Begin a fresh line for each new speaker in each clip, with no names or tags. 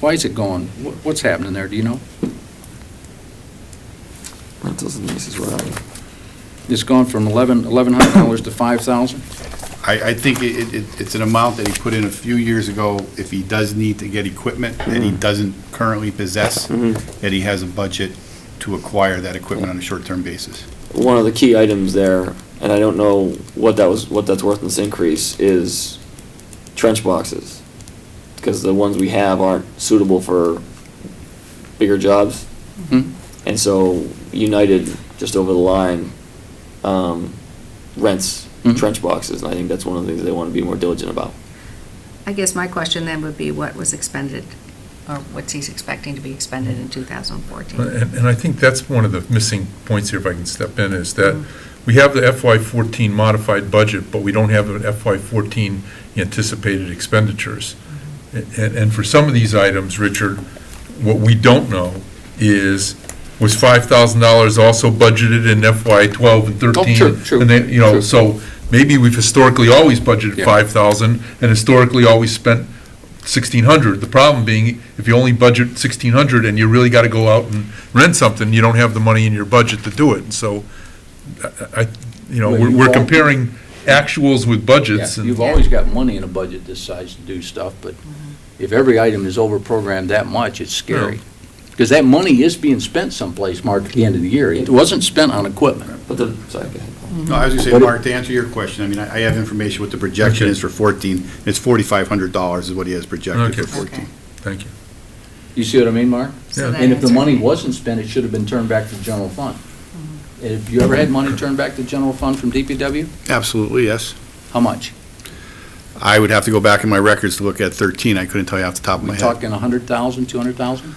Why is it gone? Wha- What's happening there, do you know?
Rentals and leases were up.
It's gone from eleven, eleven hundred dollars to five thousand?
I, I think it, it, it's an amount that he put in a few years ago, if he does need to get equipment that he doesn't currently possess,
Mm-hmm.
that he has a budget to acquire that equipment on a short-term basis.
One of the key items there, and I don't know what that was, what that's worth in this increase, is trench boxes. Because the ones we have aren't suitable for bigger jobs.
Hmm?
And so United, just over the line, um, rents
Mhm.
trench boxes, and I think that's one of the things they want to be more diligent about.
I guess my question then would be what was expended, or what's he's expecting to be expended in 2014?
And and I think that's one of the missing points here, if I can step in, is that we have the FY14 modified budget, but we don't have an FY14 anticipated expenditures. And, and for some of these items, Richard, what we don't know is, was $5,000 also budgeted in FY12 and 13?
Oh, true, true,
And they,
true.
you know, so maybe we've historically always
Yeah.
budgeted 5,000 and historically always spent 1,600. The problem being, if you only budget 1,600 and you really got to go out and rent something, you don't have the money in your budget to do it. So, I, I- you know,
Well,
we're
you've
we're
al-
comparing actuals with budgets.
Yeah,
and-
You've always got money in a budget this size to do stuff, but if every item is over-programmed that much, it's scary. Because that money is being spent someplace, Mark, at the end of the year. It wasn't spent on equipment.
But the, sorry, go ahead.
No, I was gonna say,
But it-
Mark, to answer your question, I mean, I I have information what the projection
Okay.
is for fourteen, it's forty-five hundred dollars is what he has projected
Okay.
for fourteen.
Thank you.
You see what I mean, Mark?
So
Yeah.
that
And if the
answers-
money wasn't spent, it should have been turned back to the general fund. And If you ever had money turned back to the general fund from DPW,
Absolutely, yes.
how much?
I would have to go back in my records to look at thirteen, I couldn't tell you off the top of my
We
head.
talking a hundred thousand, two hundred thousand?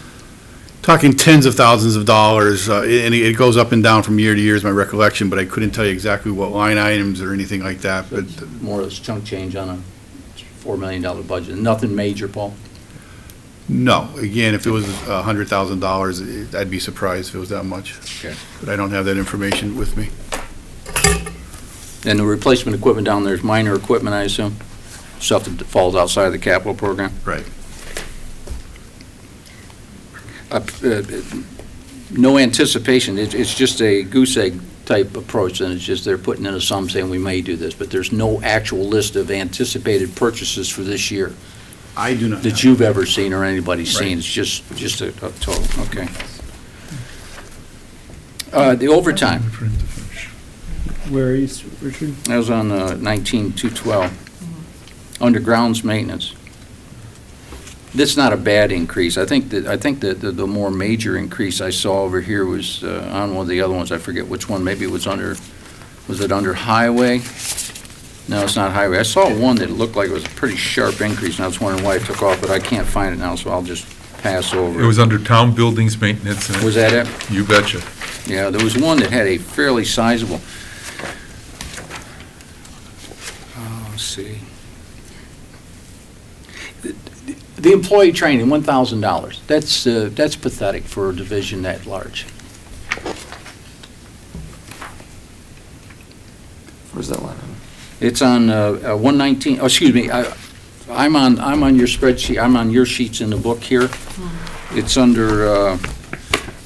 Talking tens of thousands of dollars, uh, and it it goes up and down from year to year is my recollection, but I couldn't tell you exactly what line items or anything like that, but
More or less chunk change on a four million dollar budget. Nothing major, Paul.
No, again, if it was a hundred thousand dollars, I'd be surprised if it was that much.
Okay.
But I don't have that information with me.
And the replacement equipment down there is minor equipment, I assume? Stuff that falls outside of the capital program?
Right.
Uh, uh, No anticipation, It's- it's just a goose egg type approach, and it's just they're putting in a sum saying we may do this, but there's no actual list of anticipated purchases for this year
I do not.
that you've ever seen or anybody's seen.
Right.
It's just, just a a total, okay. Uh, The overtime,
Where is Richard?
that was on uh, 19-212, under grounds maintenance. That's not a bad increase. I think that, I think that the- the more major increase I saw over here was uh, on one of the other ones, I forget which one, maybe it was under, was it under highway? No, it's not highway. I saw one that looked like it was a pretty sharp increase, and I was wondering why it took off, but I can't find it now, so I'll just pass over.
It was under town buildings maintenance. and-
Was that it?
You betcha.
Yeah, there was one that had a fairly sizable. Oh, let's see. The employee training, one thousand dollars. That's, uh, that's pathetic for a division that large.
Where's that line? item?
It's on uh, uh, 119, oh, excuse me, I- I'm on, I'm on your spreadsheet, I'm on your sheets in the book here. It's under, uh, uh,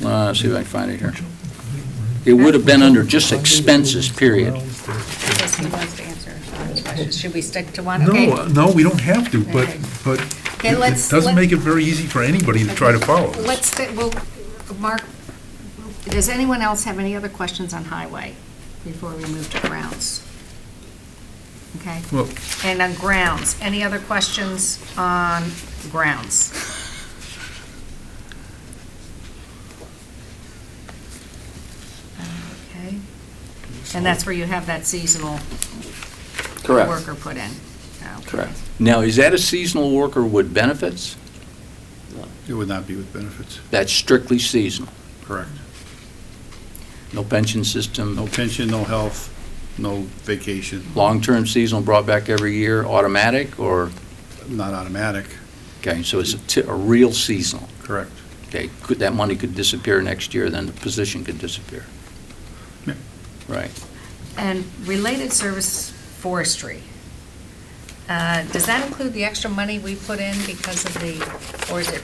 let's see if I can find it here. It would have been under just expenses, period.
I guess he wants to answer Sean's question. Should we stick to one? Okay.
No, no, we don't have to, but,
Okay.
but
Okay,
it
let's-
it doesn't
let-
make it very easy for anybody to try to follow. this.
Let's, sti- well, Mark, does anyone else have any other questions on highway before we move to grounds? Okay?
Well-
And on grounds, any other questions on grounds? Okay. And that's where you have that seasonal
Correct,
worker put in? Okay.
correct.
Now, is that a seasonal worker with benefits?
It would not be with benefits.
That's strictly seasonal.
Correct.
No pension system,
No pension, no health, no vacation,
long-term seasonal brought back every year, automatic, or,
not automatic.
okay, so it's a ti- a real seasonal.
Correct.
Okay, could, that money could disappear next year, then the position could disappear.
Yeah.
Right.
And related service forestry, uh, does that include the extra money we put in because of the, or is it